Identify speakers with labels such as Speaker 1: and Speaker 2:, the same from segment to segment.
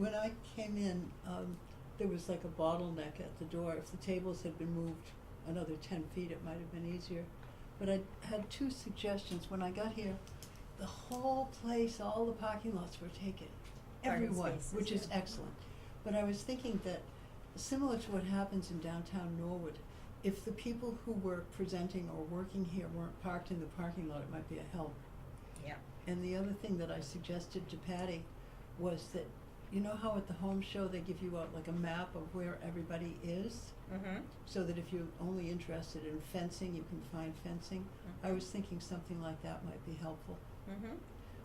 Speaker 1: When I came in, um, there was like a bottleneck at the door. If the tables had been moved another ten feet, it might have been easier. But I had two suggestions. When I got here, the whole place, all the parking lots were taken.
Speaker 2: Garden
Speaker 1: Everyone,
Speaker 2: spaces,
Speaker 1: which is
Speaker 2: yeah.
Speaker 1: excellent. But I was thinking that, similar to what happens in downtown Norwood, if the people who were presenting or working here weren't parked in the parking lot, it might be a help.
Speaker 2: Yeah.
Speaker 1: And the other thing that I suggested to Patty was that, you know how at the home show they give you out like a map of where everybody is?
Speaker 2: Mm-hmm.
Speaker 1: So that if you're only interested in fencing, you can find fencing. I
Speaker 2: Mhm.
Speaker 1: was thinking something like that might be helpful.
Speaker 2: Mm-hmm.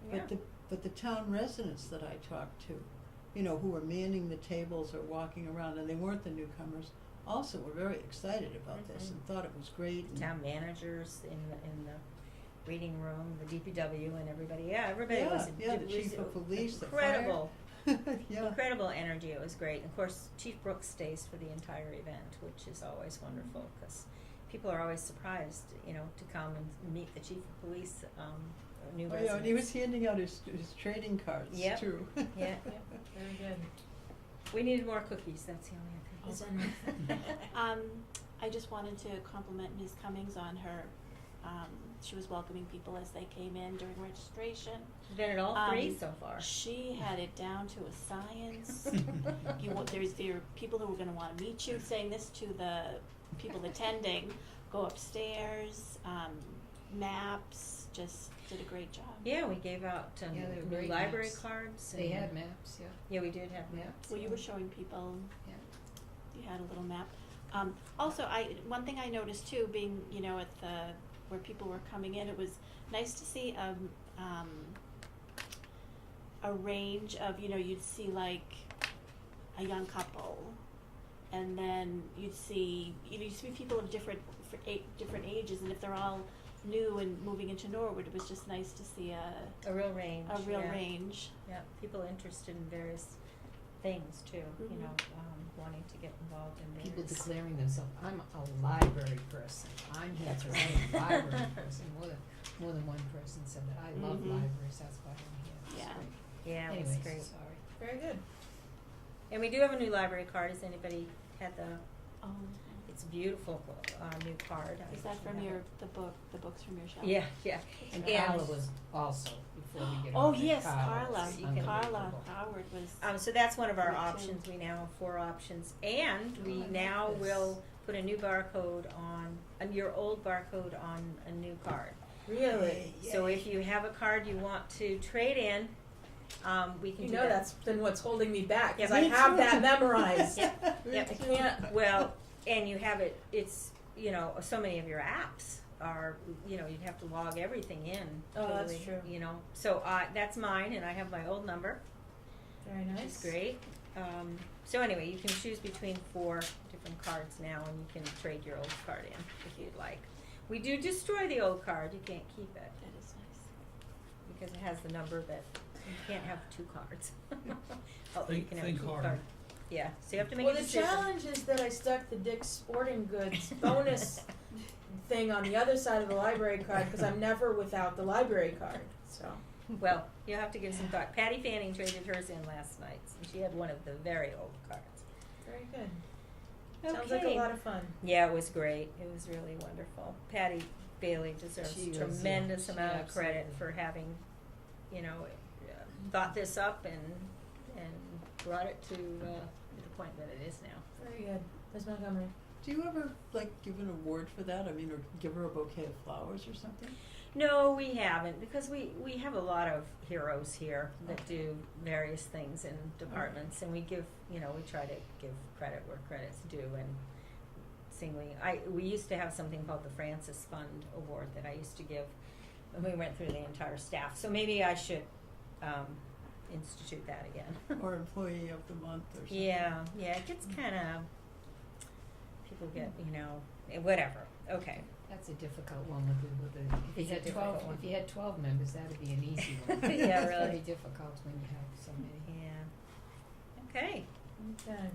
Speaker 1: But the, but the town residents that I talked to, you know, who were manning the tables or walking around, and they weren't the newcomers, also were very excited about this and
Speaker 2: Mhm.
Speaker 1: thought it was great. and-
Speaker 2: town managers in the, in the reading room, the DPW and everybody, yeah, everybody was.
Speaker 1: Yeah, yeah,
Speaker 2: it
Speaker 1: the
Speaker 2: was
Speaker 1: chief of police, the fire.
Speaker 2: Incredible,
Speaker 1: Yeah.
Speaker 2: incredible energy, it was great, and of course, Chief Brooks stays for the entire event, which is always wonderful, cause people are always surprised, you know, to come and meet the chief of police, um, new
Speaker 1: Oh,
Speaker 2: residents.
Speaker 1: yeah, and he was handing out his, his trading cards
Speaker 2: Yep.
Speaker 1: too.
Speaker 2: Yeah, yeah.
Speaker 3: Very good.
Speaker 2: We needed more cookies, that's the only
Speaker 3: Oh.
Speaker 2: other thing.
Speaker 4: Um, I just wanted to compliment Ms. Cummings on her, um, she was welcoming people as they came in during registration.
Speaker 2: She's been at all three
Speaker 4: Um,
Speaker 2: so far.
Speaker 4: She had it down to a science. You, wa- there's, there are people who are gonna wanna meet you, saying this to the people attending, go upstairs, um, maps, just did a great job.
Speaker 2: Yeah, we gave out um,
Speaker 3: Yeah, they were
Speaker 2: new
Speaker 3: great
Speaker 2: library
Speaker 3: maps.
Speaker 2: cards.
Speaker 3: They
Speaker 2: and-
Speaker 3: had maps, yeah.
Speaker 2: Yeah, we did have
Speaker 3: Yeah.
Speaker 2: maps.
Speaker 4: Well, you
Speaker 2: yeah.
Speaker 4: were showing people,
Speaker 3: Yeah.
Speaker 4: you had a little map. Um, also, I, one thing I noticed too, being, you know, at the, where people were coming in, it was nice to see, um, um, a range of, you know, you'd see like a young couple, and then you'd see, you know, you'd see people of different, for eight, different ages, and if they're all new and moving into Norwood, it was just nice to see a,
Speaker 2: A real range.
Speaker 4: a real
Speaker 2: yeah.
Speaker 4: range.
Speaker 2: Yeah, people interested in various things too, you
Speaker 4: Mhm.
Speaker 2: know, um, wanting to get involved in
Speaker 3: People
Speaker 2: various.
Speaker 3: declaring themselves, I'm a library person, I'm here
Speaker 2: That's
Speaker 3: for
Speaker 2: right.
Speaker 3: a library person, more than, more than one person said that, I love
Speaker 4: Mhm.
Speaker 3: libraries, that's why I'm here, It's
Speaker 4: Yeah.
Speaker 3: great.
Speaker 2: Mm-hmm. Yeah, it was
Speaker 3: Anyways,
Speaker 2: great.
Speaker 3: sorry.
Speaker 2: Very good. And we do have a new library card. Has anybody had the,
Speaker 4: Um,
Speaker 2: it's a beautiful, uh, new card. I
Speaker 4: Is that
Speaker 2: actually
Speaker 4: from
Speaker 2: have
Speaker 4: your,
Speaker 2: it.
Speaker 4: the book, the books from your shelf?
Speaker 2: Yeah, yeah.
Speaker 3: And
Speaker 2: And-
Speaker 3: Carla was also, before we get
Speaker 4: Oh,
Speaker 3: on to
Speaker 4: yes,
Speaker 3: Carla, Uh,
Speaker 4: Carla,
Speaker 3: it's
Speaker 2: You can-
Speaker 4: Carla
Speaker 3: unbelievable.
Speaker 4: Howard was,
Speaker 2: Um, so that's one of our
Speaker 4: Me too.
Speaker 2: options. We now have four options, and
Speaker 3: Oh, I
Speaker 2: we
Speaker 3: like
Speaker 2: now
Speaker 3: this.
Speaker 2: will put a new barcode on um, your old barcode on a new card.
Speaker 5: Really?
Speaker 2: So if you have a card you want to trade in, um, we can
Speaker 5: You
Speaker 2: do
Speaker 5: know
Speaker 2: that.
Speaker 5: that's been what's holding me back because
Speaker 2: Yeah,
Speaker 5: I
Speaker 2: me
Speaker 5: have
Speaker 1: too.
Speaker 5: that memorized.
Speaker 2: Yeah.
Speaker 1: Me
Speaker 2: Yeah.
Speaker 1: too.
Speaker 5: Yeah.
Speaker 2: well, and you have it. It's you know so many of your apps are you know you'd have to log everything in.
Speaker 5: Oh, that's
Speaker 2: totally,
Speaker 5: true.
Speaker 2: You know, so I that's mine, and I have my old number,
Speaker 5: Very
Speaker 2: which is great. Um, so anyway, you can choose between four different cards now, and you can trade your old card in if you'd like. We do destroy the old card. You can't keep it
Speaker 4: that is nice.
Speaker 2: because it has the number that you can't have two cards. oh, you
Speaker 6: Think-
Speaker 2: can have
Speaker 6: think
Speaker 2: two
Speaker 6: harder.
Speaker 2: cards. Yeah, so you have to make
Speaker 5: Well,
Speaker 2: a
Speaker 5: the
Speaker 2: decision.
Speaker 5: challenge is that I stuck the Dick's Sporting Goods bonus thing on the other side of the library card because I'm never without the library card. So
Speaker 2: Well, you'll have to give some thought. Patty Fanning traded hers in last night, and she had one of the very old cards.
Speaker 5: very good. Sounds like a lot of fun.
Speaker 2: Yeah, it was great. It was really wonderful. Patty Bailey deserves
Speaker 3: She was, yeah.
Speaker 2: tremendous
Speaker 3: She
Speaker 2: amount of credit
Speaker 3: absolutely-
Speaker 2: for having, you know, uh, thought this up and and brought it to uh, the point that it is now.
Speaker 5: Very good. Ms. Montgomery.
Speaker 1: Do you ever like give an award for that? I mean, or give her a bouquet of flowers or something?
Speaker 2: No, we haven't because we, we have a lot of heroes here that do various things in departments, and we give you know we try to give credit where credit's due and singling. I we used to have something called the Francis Fund Award that I used to give, and we went through the entire staff. So maybe I should um, institute that again.
Speaker 1: Or employee of the month or something?
Speaker 2: Yeah, yeah, it gets kind of people get you know eh, whatever. Okay.
Speaker 3: That's a difficult one with the, with the,
Speaker 2: It's
Speaker 3: if you
Speaker 2: a
Speaker 3: had
Speaker 2: difficult
Speaker 3: twelve,
Speaker 2: one.
Speaker 3: if you had twelve members, that'd be an easy one.
Speaker 2: Yeah,
Speaker 3: It's
Speaker 2: really.
Speaker 3: very difficult when you have so many.
Speaker 2: Yeah. Okay.
Speaker 5: Okay.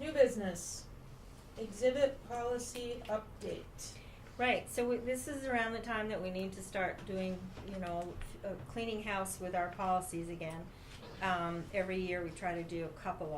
Speaker 5: New business. Exhibit policy update.
Speaker 2: Right, so we, this is around the time that we need to start doing, you know, f- uh, cleaning house with our policies again. um, every year we try to do a couple of.